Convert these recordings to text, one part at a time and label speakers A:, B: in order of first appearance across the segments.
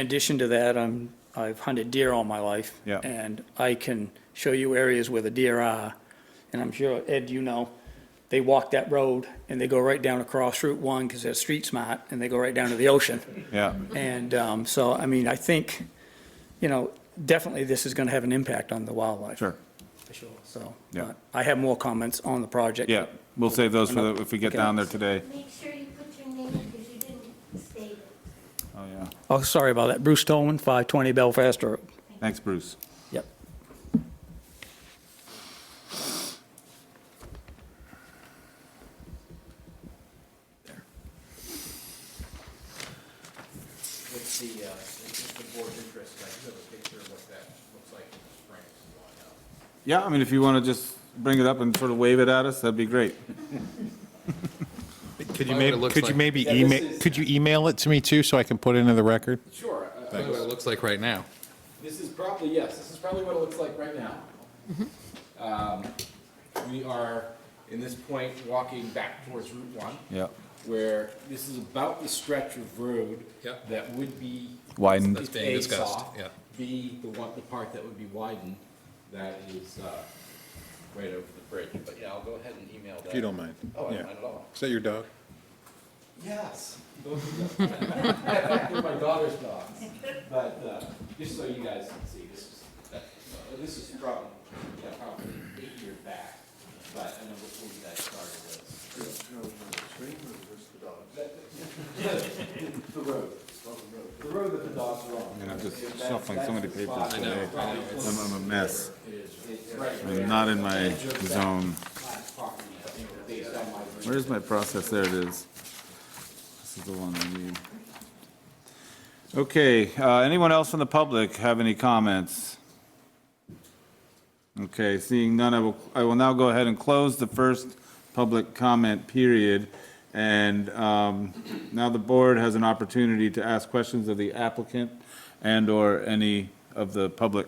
A: In addition to that, I'm, I've hunted deer all my life.
B: Yeah.
A: And I can show you areas where the deer are, and I'm sure, Ed, you know, they walk that road and they go right down across Route One because they're street smart and they go right down to the ocean.
B: Yeah,
A: And, um, so, I mean, I think, you know, definitely this is gonna have an impact on the wildlife.
B: sure.
A: For sure. So.
B: Yeah.
A: but I have more comments on the project.
B: Yeah, we'll save those for, the- if we get
A: Okay.
B: down there today.
C: Make sure you put your name, because you didn't state it.
B: Oh, yeah.
A: Oh, sorry about that. Bruce Tolman, five twenty Belfast Road.
B: Thanks, Bruce.
A: Yep.
D: What's the, uh, it's the board's interest, I do have a picture of what that looks like in the spring, if you want to know.
B: Yeah, I mean, if you want to just bring it up and sort of wave it at us, that'd be great.
E: Could you
F: Find what it
E: maybe,
F: looks
E: could you
F: like.
E: maybe
D: Yeah, this
E: email,
D: is-
E: could you email it to me too, so I can put it into the record?
D: Sure, uh,
F: Look what it looks like right now.
D: this is probably, yes, this is probably what it looks like right now.
F: Mm-hmm.
D: Um, We are, in this point, walking back towards Route One.
B: Yeah.
D: Where this is about the stretch of road.
F: Yep.
D: That would be.
B: Widened.
F: That's being
D: A,
F: discussed,
D: soft,
F: yeah.
D: B, the one, the part that would be widened, that is, uh, right over the bridge, but yeah, I'll go ahead and email that.
E: mind.
D: Oh, I don't mind at all.
E: Is that your dog?
D: Yes. both of them. They're my daughter's dogs, but, uh, just so you guys can see, this is, that- uh, this is from, yeah, probably eight years back, but I know before you guys started was. The the road, the road that the dogs are on.
B: And I'm just shuffling so many papers today. I'm I'm a mess.
D: It's right
B: I'm not in my zone.
D: property, I think, based on my.
B: Where's my process? There it is. This is the one I need. Okay, uh, anyone else from the public have any comments? Okay, seeing none, I will, I will now go ahead and close the first public comment period. And um, now the board has an opportunity to ask questions of the applicant and/or any of the public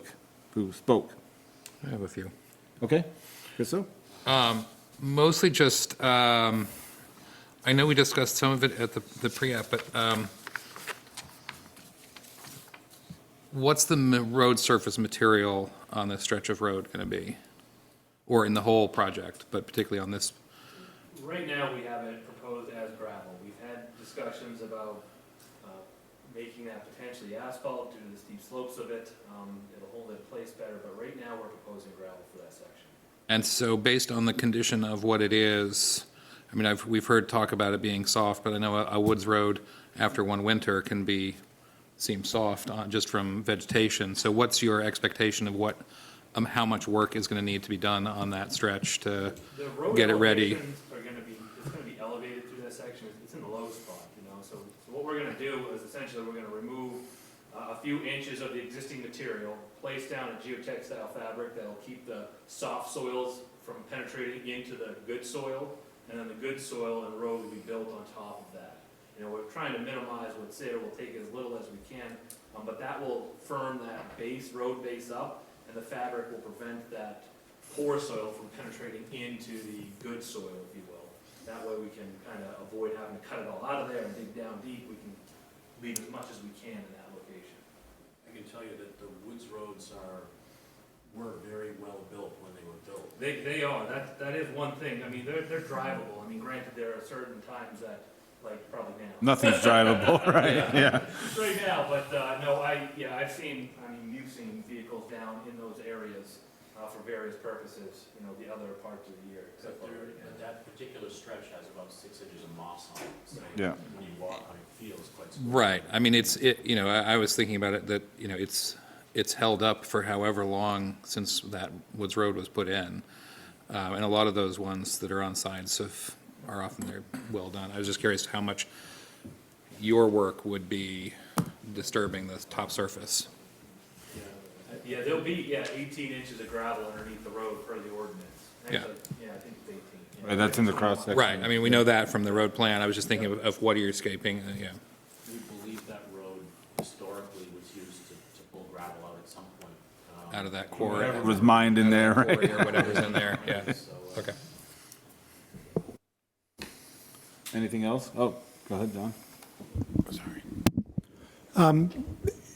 B: who spoke.
F: I have a few.
B: Okay? Chriso?
F: Mostly just, um, I know we discussed some of it at the, the pre-app, but, um, what's the ma- road surface material on this stretch of road gonna be? Or in the whole project, but particularly on this,
G: Right now, we have it proposed as gravel. We've had discussions about uh, making that potentially asphalt due to the steep slopes of it. Um, It'll hold it in place better, but right now, we're proposing gravel for that section.
F: and so based on the condition of what it is, I mean, I've, we've heard talk about it being soft, but I know a, a woods road after one winter can be, seem soft on, just from vegetation. So what's your expectation of what, um, how much work is gonna need to be done on that stretch to
G: The road
F: get it ready?
G: elevations are gonna be, it's gonna be elevated through that section, It's- it's in the low spot, you know, so, so what we're gonna do is essentially, we're gonna remove uh, a few inches of the existing material, place down a geotech style fabric that'll keep the soft soils from penetrating into the good soil, and then the good soil and road will be built on top of that. You know, we're trying to minimize what's there, we'll take as little as we can, um, but that will firm that base, road base up, and the fabric will prevent that poor soil from penetrating into the good soil, if you will. That way we can kind of avoid having to cut it all out of there and dig down deep, we can leave as much as we can in that location.
H: I can tell you that the woods roads are, were very well built when they were built.
G: They, they are, that, that is one thing, I mean, they're, they're drivable, I mean, granted, there are certain times that, like, probably now.
B: Nothing's drivable, right? Yeah.
G: Right now, but, uh, no, I, yeah, I've seen, I mean, you've seen vehicles down in those areas, uh, for various purposes, you know, the other parts of the year.
H: But
G: except for-
H: there, but that particular stretch has about six inches of moss on it, so.
B: Yeah.
H: When you walk on it, it feels quite. smooth.
F: Right, I mean, it's, it, you know, I, I was thinking about it, that, you know, it's, it's held up for however long since that Woods Road was put in. Uh, and a lot of those ones that are on sides of, are often, they're well done. I was just curious how much your work would be disturbing the top surface.
G: Uh, Yeah, there'll be, yeah, eighteen inches of gravel underneath the road per the ordinance.
F: Yeah.
G: Actually, Yeah, I think it's eighteen.
B: Right, That's in the cross section.
F: Right, I mean, we know that from the road plan, I was just thinking of, of what you're escaping, uh, yeah.
H: We believe that road historically was used to, to pull gravel out at some point. um,
F: Out of that quarry.
B: It was mined in there, right?
F: Quarry or whatever's in there, yeah,
H: So, uh,
F: okay.
B: Anything else? Oh, go ahead, John.